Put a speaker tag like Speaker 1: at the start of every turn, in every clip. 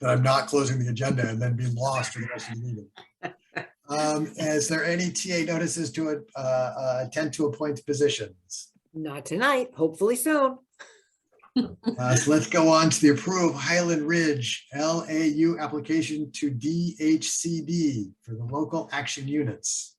Speaker 1: that I'm not closing the agenda and then be lost for the rest of the meeting. Um, Is there any TA notices to uh, uh, attend to appoint positions?
Speaker 2: Not tonight, hopefully soon.
Speaker 1: Uh, so let's go on to the approve Highland Ridge LAU application to DHCD for the local action units.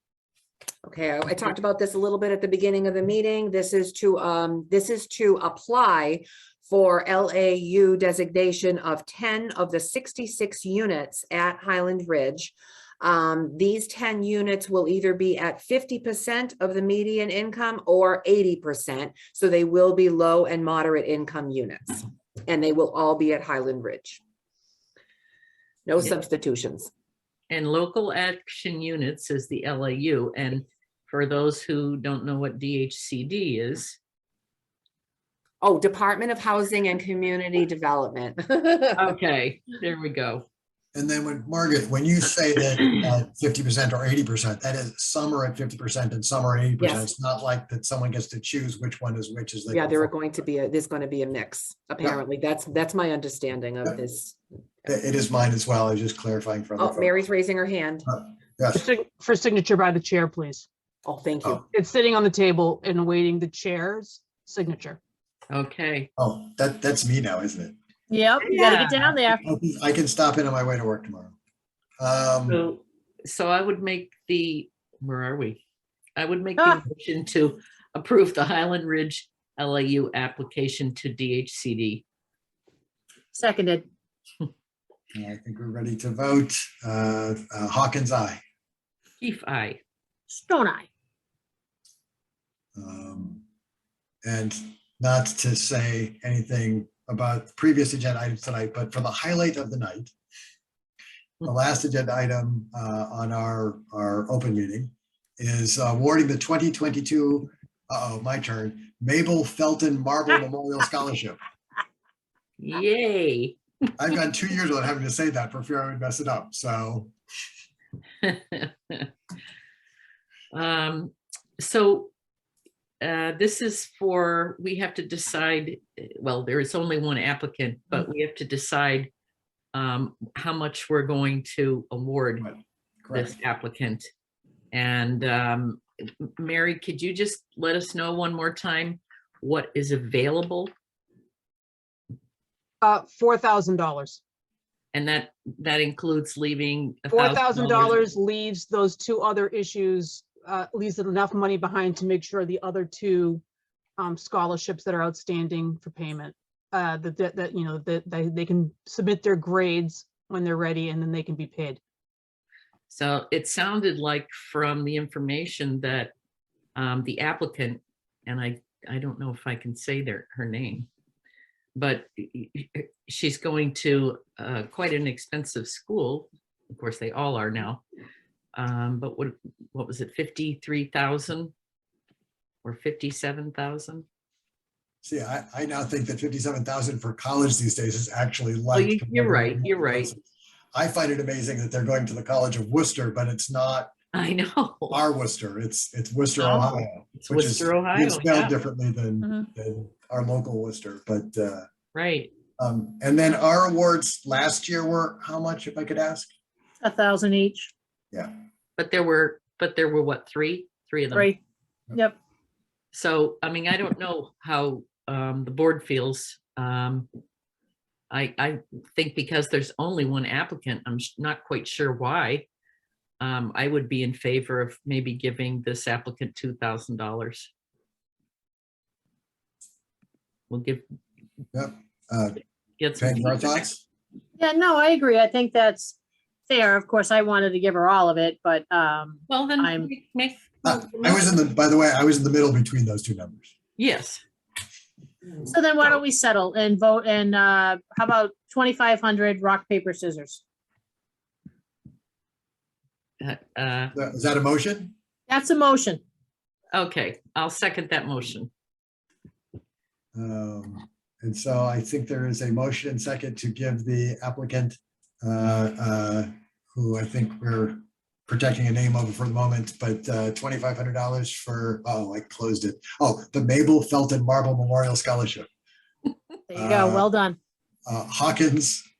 Speaker 2: Okay, I I talked about this a little bit at the beginning of the meeting. This is to, um, this is to apply for LAU designation of ten of the sixty-six units at Highland Ridge. Um, these ten units will either be at fifty percent of the median income or eighty percent. So they will be low and moderate income units, and they will all be at Highland Ridge. No
Speaker 3: Yeah.
Speaker 2: substitutions.
Speaker 3: And local action units is the LAU. And for those who don't know what DHCD is,
Speaker 2: Oh, Department of Housing and Community Development.
Speaker 3: okay, there we go.
Speaker 1: And then when, Margaret, when you say that uh, fifty percent or eighty percent, that is some are at fifty percent and some are eighty percent.
Speaker 2: Yes.
Speaker 1: It's not like that someone gets to choose which one is which as they.
Speaker 2: Yeah,
Speaker 1: go
Speaker 2: there are
Speaker 1: forward.
Speaker 2: going to be, a there's going to be a mix, apparently. That's, that's my understanding
Speaker 1: Yeah.
Speaker 2: of this.
Speaker 1: It it is mine as well. I was just clarifying for. other
Speaker 2: Oh,
Speaker 1: folks.
Speaker 2: Mary's raising her hand.
Speaker 4: For
Speaker 1: Yes,
Speaker 4: sig- For signature by the chair, please.
Speaker 2: Oh, thank you.
Speaker 1: Oh.
Speaker 4: It's sitting on the table and awaiting the chair's signature.
Speaker 3: Okay.
Speaker 1: oh, that, that's me now, isn't it?
Speaker 5: Yep, you gotta get down there.
Speaker 1: I can- I can stop in on my way to work tomorrow. Um,
Speaker 3: So, so I would make the, where are we? I would make
Speaker 5: Ah.
Speaker 3: the motion to approve the Highland Ridge LAU application to DHCD.
Speaker 5: Seconded.
Speaker 1: I think we're ready to vote. Uh, uh, Hawkins, aye.
Speaker 3: Keef, I.
Speaker 5: Stone Eye.
Speaker 1: Um, And not to say anything about previous agenda items tonight, but for the highlight of the night, the last agenda item uh, on our, our open meeting is awarding the 2022, uh-oh, my turn, Mabel Felton Marble Memorial Scholarship.
Speaker 3: Yay.
Speaker 1: I've gone two years without having to say that for fear I would mess it up, so.
Speaker 3: Um, so uh, this is for, we have to decide, eh, well, there is only one applicant, but we have to decide um, how much we're going to award
Speaker 1: Right,
Speaker 3: this
Speaker 1: correct.
Speaker 3: applicant. And um, M- Mary, could you just let us know one more time what is available?
Speaker 4: Uh, four thousand dollars.
Speaker 3: And that, that includes leaving.
Speaker 4: Four thousand dollars leaves those two other issues, uh, leaves enough money behind to make sure the other two um, scholarships that are outstanding for payment, uh, that, that, that, you know, that, they, they can submit their grades when they're ready and then they can be paid.
Speaker 3: So it sounded like from the information that um, the applicant, and I, I don't know if I can say their, her name, but y- y- y- she's going to uh, quite an expensive school. Of course, they all are now. Um, But what, what was it, 53,000 or 57,000?
Speaker 1: See, I, I now think that 57,000 for college these days is actually
Speaker 3: Well,
Speaker 1: light.
Speaker 3: you- you're right, you're right.
Speaker 1: I find it amazing that they're going to the College of Worcester, but it's not
Speaker 3: I know.
Speaker 1: our Worcester, it's, it's Worcester,
Speaker 3: Oh,
Speaker 1: Ohio.
Speaker 3: It's
Speaker 1: which is-
Speaker 3: Worcester, Ohio.
Speaker 1: It's spelled
Speaker 3: yeah, Mm-hmm.
Speaker 1: differently than,
Speaker 5: Mhm.
Speaker 1: than our local Worcester, but, uh,
Speaker 3: Right.
Speaker 1: um, and then our awards last year were how much, if I could ask?
Speaker 5: A thousand each,
Speaker 3: But there were, but there were what, three? Three of
Speaker 4: Mm.
Speaker 3: them?
Speaker 5: three. Yep,
Speaker 3: So, I mean, I don't know how um, the board feels. Um, I, I think because there's only one applicant, I'm s- not quite sure why. Um, I would be in favor of maybe giving this applicant two thousand dollars. We'll give,
Speaker 1: Uh,
Speaker 3: get some.
Speaker 1: Peg, your
Speaker 3: feedback.
Speaker 1: thoughts?
Speaker 5: yeah, no, I agree. I think that's fair. Of course, I wanted to give her all of it, but, um,
Speaker 3: Well, then,
Speaker 5: I'm-
Speaker 3: make- make.
Speaker 1: Uh, I was in the, by the way, I was in the middle between those two numbers.
Speaker 3: Yes.
Speaker 5: so then why don't we settle and vote and, uh, how about twenty-five hundred rock, paper, scissors?
Speaker 3: Uh, uh,
Speaker 1: Is that a motion?
Speaker 5: That's a motion.
Speaker 3: Okay, I'll second that motion.
Speaker 1: Um, And so I think there is a motion and second to give the applicant, uh, uh, who I think we're protecting a name of for the moment, but uh, $2,500 for, oh, I closed it. Oh, the Mabel Felton Marble Memorial Scholarship.
Speaker 5: There you go.
Speaker 1: Uh,
Speaker 5: Well done.
Speaker 1: Uh, Hawkins,